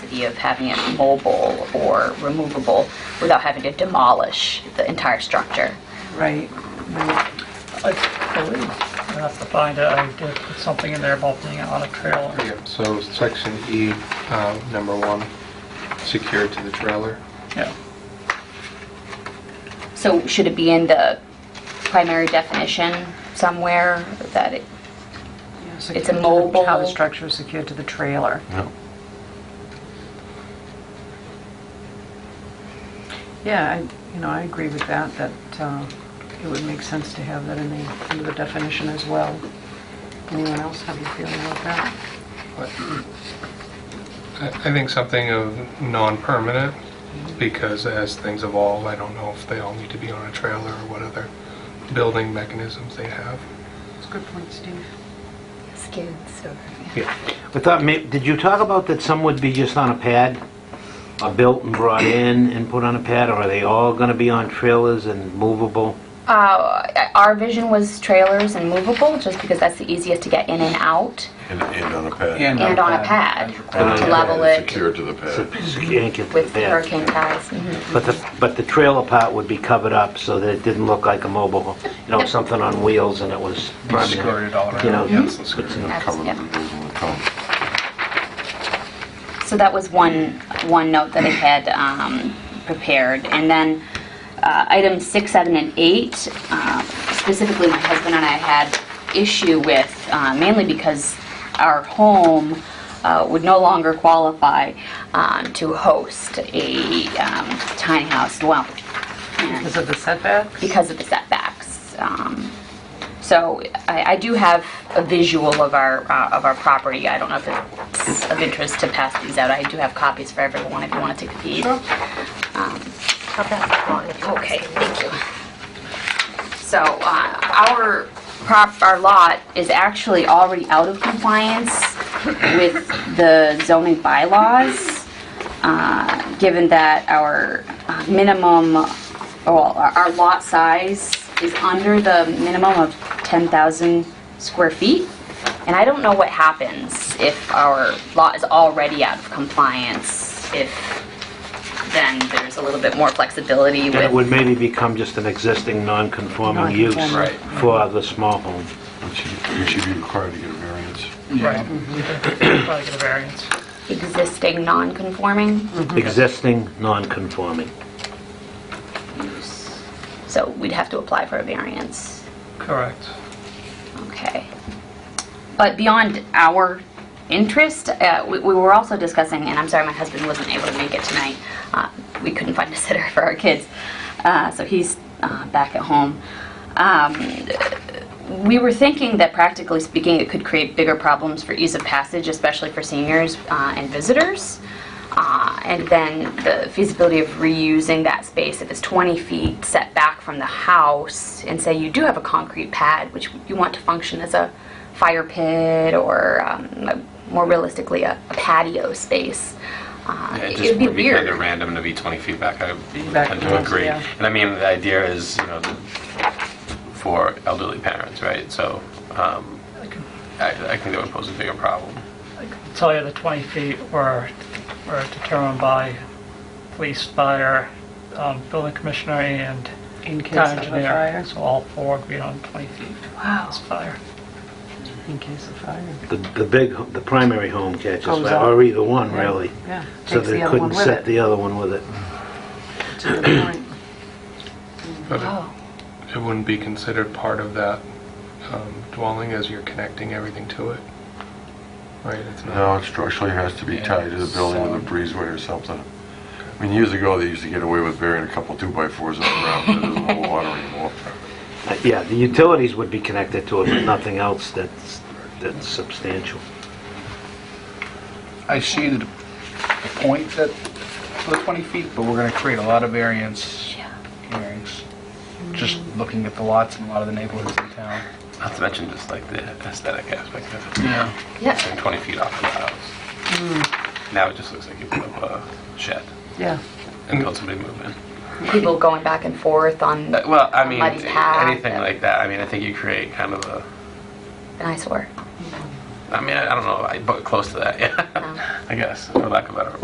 idea of having it mobile or removable without having to demolish the entire structure. Right. I believe, I have to find it, I did put something in there about being on a trailer. Yep, So section E, uh, number one, secured to the trailer. Yeah, So should it be in the primary definition somewhere that it, It's a mobile- How the structure is secured to the trailer. No. Yeah, I, you know, I agree with that, that uh, it would make sense to have that in the, in the definition as well. Anyone else have a feeling about that? I I think something of non-permanent, because as things evolve, I don't know if they all need to be on a trailer or what other building mechanisms they have. It's a good point, Steve. skids or? I thought, may- did you talk about that some would be just on a pad? Are built and brought in and put on a pad, or are they all going to be on trailers and movable? Uh, our vision was trailers and movable, just because that's the easiest to get in and out, And, and on a pad. and on a pad, to level And it Secure to the pad. Can't get to the with pad. hurricane ties. Mhm. But the, but the trailer part would be covered up so that it didn't look like a mobile, you know, something on wheels and it was. Skirted all around. You know, Yes, it's skirted. That's- Cover the yep. vehicles when they come. So that was one, one note that I had um, prepared. And then uh, items six, seven, and eight, uh, specifically my husband and I had issue with, uh, mainly because our home uh, would no longer qualify um, to host a um, tiny house dwelling. And- Because of the setbacks? because of the setbacks. Um, So I I do have a visual of our, uh, of our property. I don't know if it's of interest to pass these out. I do have copies for everyone if you want to take a peek. Um, Okay, thank you. So uh, our prop, our lot is actually already out of compliance with the zoning bylaws, uh, given that our uh, minimum, well, our our lot size is under the minimum of 10,000 square feet. And I don't know what happens if our lot is already out of compliance, if then there's a little bit more flexibility with... And it would maybe become just an existing non-conforming use Non-conforming. for the small home. You should- You should be required to get a variance. right. Probably get a variance. existing non-conforming Existing non-conforming. use. So we'd have to apply for a variance. Correct. Okay. But beyond our interest, uh, we we were also discussing, and I'm sorry, my husband wasn't able to make it tonight. Uh, We couldn't find a sitter for our kids, Uh, so he's uh, back at home. Um, We were thinking that practically speaking, it could create bigger problems for ease of passage, especially for seniors uh, and visitors. Uh, And then the feasibility of reusing that space, if it's 20 feet set back from the house, and say you do have a concrete pad, which you want to function as a fire pit or um, a- more realistically, a a patio space. uh, It It just would be would be kind of weird. random to be 20 feet back. I would Back tend to to us, agree. yeah. And I mean, the idea is, you know, the- for elderly parents, right? So um, I can I I think that would pose a bigger problem. tell you the 20 feet were were determined by police, fire, um, building commissioner, and In case of town a engineer. fire? So all four would be on 20 feet Wow. as fire. In case of fire. The, the big, the primary home catches Comes fire, up. or either one, really. Yeah. So Takes the they other one couldn't with set it. the other one with it. That's a good point. But it- Oh, it wouldn't be considered part of that um, dwelling as you're connecting everything to it, right? It's not- No, it structurally has to be tied to the building with a breezeway or something. I mean, years ago, they used to get away with burying a couple two-by-fours in the ground, but it doesn't hold water anymore. Uh, Yeah, the utilities would be connected to it, but nothing else that's, that's substantial. I see the point that, for the 20 feet, but we're going to create a lot of variance yeah. hearings, just looking at the lots in a lot of the neighborhoods in town. Not to mention just like the aesthetic aspect of it. Yeah. Yeah, Turn 20 feet off of the house. Hmm. Now it just looks like you put up a shed Yeah. and told somebody to move in. people going back and forth on Uh, Well, I mean, Somebody's hat. anything like that. I mean, I think you create kind of a, an eyesore. I mean, I I don't know, I- but close to that, yeah, No. I guess, for lack of a better